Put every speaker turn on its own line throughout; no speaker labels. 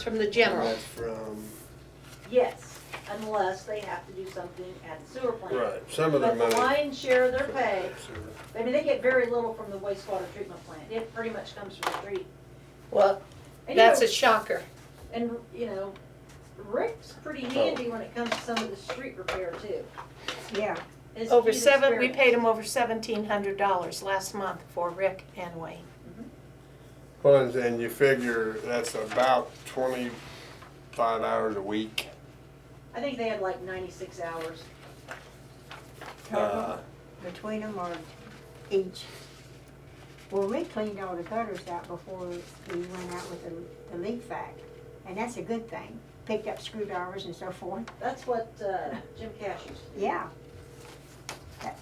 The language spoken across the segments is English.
It's from the general.
Not From,
Yes, unless they have to do something at the sewer plant.
right, some of their
But
money.
the lion's share of their pay,
Sewer.
I mean, they get very little from the wastewater treatment plant. It pretty much comes from the street.
Well,
And, you
that's
know,
a shocker.
And, you know, Rick's pretty
Oh.
handy when it comes to some of the street repair too.
Yeah,
It's
Over
his
seven, we
experience.
paid him over seventeen hundred dollars last month for Rick and Wayne.
Well, and- and you figure that's about twenty-five hours a week.
I think they had like ninety-six hours.
Uh,
total, between them or each. Well, we cleaned all the gutters out before we went out with the, the leak vac, and that's a good thing. Picked up screwdrivers and so forth,
That's what, uh, Jim Cash used to do.
yeah. That-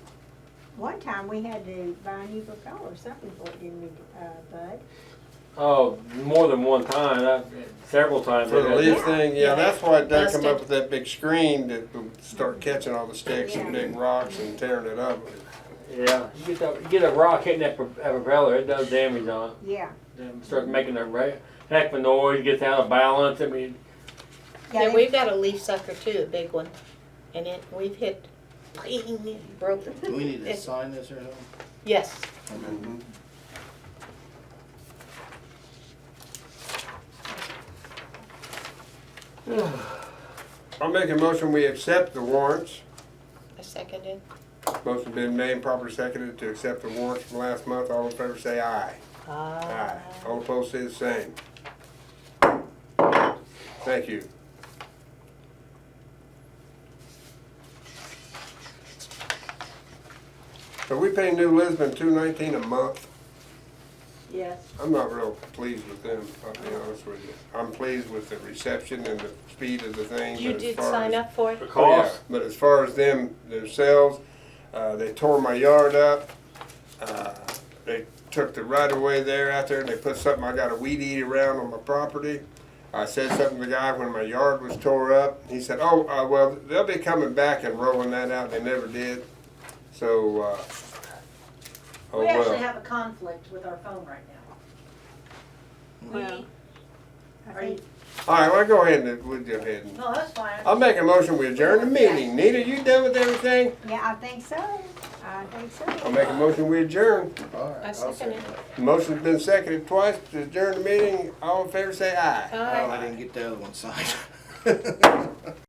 One time we had to buy a new propel or something for it, didn't we, uh, Bud?
Oh, more than one time, I, several times.
For the
I've had
leaf
to-
thing, yeah, that's why they come
Busted.
up with that big screen that will start catching all the sticks and
Yeah.
big rocks and tearing it up.
Yeah, you get, that, you get a rock hitting that pro- that propeller, it does damage on it.
Yeah.
It starts making a ra- heck of a noise, gets out of balance. I mean,
Yeah,
they-
we've got a leaf sucker too, a big one, and it, we've hit, broke it.
Do we need to
It's-
sign this or something?
Yes,
I'll make a motion, we accept the warrants.
I seconded.
Motion been made, properly seconded to accept the warrants from last month. All in favor say aye.
Ah.
Aye. All opposed say the same. Thank you. So we pay New Lisbon two nineteen a month.
Yes.
I'm not real pleased with them, I'll be honest with you. I'm pleased with the reception and the speed of the thing.
You
but as
did
far
sign
as-
up for it?
the
Oh, yeah.
cost.
But as far as them themselves, uh, they tore my yard up. Uh, they took the right of way there out there and they put something, I got a weed eater around on my property. I said something to the guy when my yard was tore up. He said, oh, uh, well, they'll be coming back and rolling that out. They never did. So, uh, oh,
We actually
well.
have a conflict with our phone right now.
Well, I
Are you-
think,
All right, well, go ahead and, we'll go ahead and.
No, that's fine.
I'll make a motion, we adjourn the meeting. Nita, you done with everything?
yeah, I think so, I think so.
I'll make a motion, we adjourn.
All right,
I
I'll
second it.
that.
Motion's been seconded twice to adjourn the meeting. All in favor, say aye.
Aye.
Oh, I didn't get the other one signed.